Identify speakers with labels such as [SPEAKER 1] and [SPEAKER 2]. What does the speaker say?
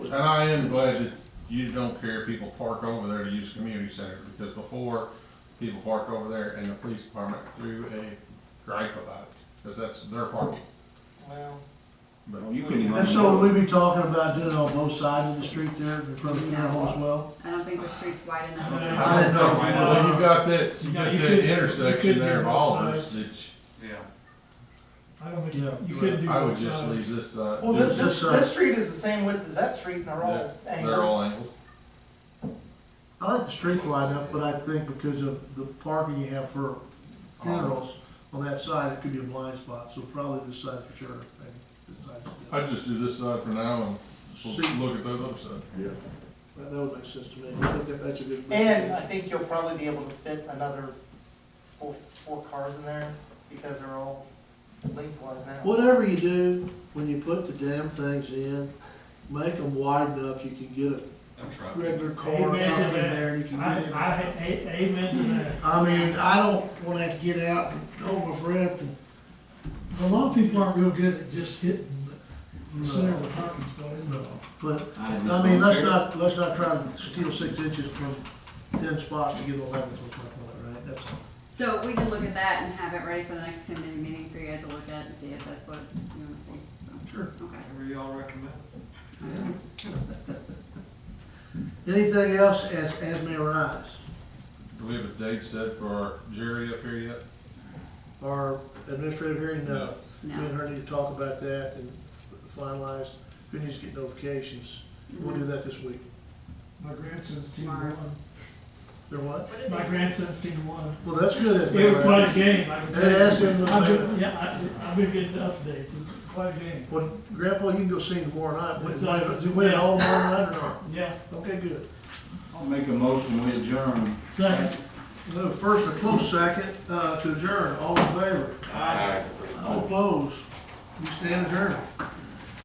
[SPEAKER 1] And I am glad that you don't care if people park over there to use the community center, because before, people parked over there and the police department threw a gripe about it, because that's their parking.
[SPEAKER 2] Well,
[SPEAKER 1] But
[SPEAKER 3] You couldn't even-
[SPEAKER 4] And so will we be talking about doing it on both sides of the street there, in front of the funeral home as well?
[SPEAKER 5] I don't think the street's wide
[SPEAKER 2] Uh,
[SPEAKER 5] enough.
[SPEAKER 1] I don't know, well, you've got that, you've
[SPEAKER 2] No,
[SPEAKER 1] got
[SPEAKER 2] you
[SPEAKER 1] that
[SPEAKER 2] couldn't- you
[SPEAKER 1] intersection
[SPEAKER 2] couldn't
[SPEAKER 1] there of
[SPEAKER 2] do both
[SPEAKER 1] Oliver's
[SPEAKER 2] sides.
[SPEAKER 1] that you-
[SPEAKER 3] Yeah.
[SPEAKER 2] I don't think,
[SPEAKER 4] Yeah.
[SPEAKER 2] you couldn't do
[SPEAKER 1] I would
[SPEAKER 2] both
[SPEAKER 1] just
[SPEAKER 2] sides.
[SPEAKER 1] leave this, uh,
[SPEAKER 6] Well,
[SPEAKER 1] do
[SPEAKER 6] this,
[SPEAKER 1] this-
[SPEAKER 6] this, this street is the same width as that street and they're all
[SPEAKER 1] they're
[SPEAKER 6] angled.
[SPEAKER 1] all angled.
[SPEAKER 4] I like the streets wide enough, but I think because of the parking you have for funerals on that side, it could be a blind spot, so probably this side for sure. maybe this side.
[SPEAKER 1] I'd just do this side for now and
[SPEAKER 4] See.
[SPEAKER 1] we'll look at those other side.
[SPEAKER 4] That that would make sense to me, I think that, that's a good.
[SPEAKER 6] And I think you'll probably be able to fit another four, four cars in there because they're all lengthwise now.
[SPEAKER 4] Whatever you do, when you put the damn things in, make them wide enough you can get a
[SPEAKER 3] I'm trying.
[SPEAKER 4] regular car coming
[SPEAKER 2] Amen to
[SPEAKER 4] in
[SPEAKER 2] that.
[SPEAKER 4] there, and you can
[SPEAKER 2] I,
[SPEAKER 4] get in.
[SPEAKER 2] I, a- amen to that.
[SPEAKER 4] I mean, I don't wanna have to get out and hold my breath and.
[SPEAKER 2] A lot of people aren't real good at just hitting the center of the parking spot.
[SPEAKER 4] But, I mean, let's not, let's not try to steal six inches from ten spots to get eleven, is what's my point, right? That's all.
[SPEAKER 5] So we can look at that and have it ready for the next committee meeting for you guys to look at and see if that's what you wanna see.
[SPEAKER 4] Sure.
[SPEAKER 5] So, Okay.
[SPEAKER 3] Whatever y'all recommend.
[SPEAKER 4] Anything else as, as may arise,
[SPEAKER 1] Do we have a date set for our jury up here yet?
[SPEAKER 4] our administrative hearing, no. Me and
[SPEAKER 5] No.
[SPEAKER 4] her need to talk about that and finalize, who needs to get notifications, we'll do that this week.
[SPEAKER 2] My grandson's team won.
[SPEAKER 4] They're what?
[SPEAKER 2] My grandson's team won.
[SPEAKER 4] Well, that's good as
[SPEAKER 2] It
[SPEAKER 4] may
[SPEAKER 2] was quite a
[SPEAKER 4] arise.
[SPEAKER 2] game. I can
[SPEAKER 4] They
[SPEAKER 2] tell you.
[SPEAKER 4] asked him to-
[SPEAKER 2] I've been- Yeah, I, I've been getting updates. It's quite a game.
[SPEAKER 4] Well, Grandpa, you can go sing tomorrow night,
[SPEAKER 2] It's like-
[SPEAKER 4] Wait, you win it all tomorrow night or not?
[SPEAKER 2] Yeah.
[SPEAKER 4] Okay, good.
[SPEAKER 3] I'll make a motion, we adjourn.
[SPEAKER 2] Second.
[SPEAKER 4] No, first a close second, uh, to adjourn, all in favor? All opposed? We stand adjourned.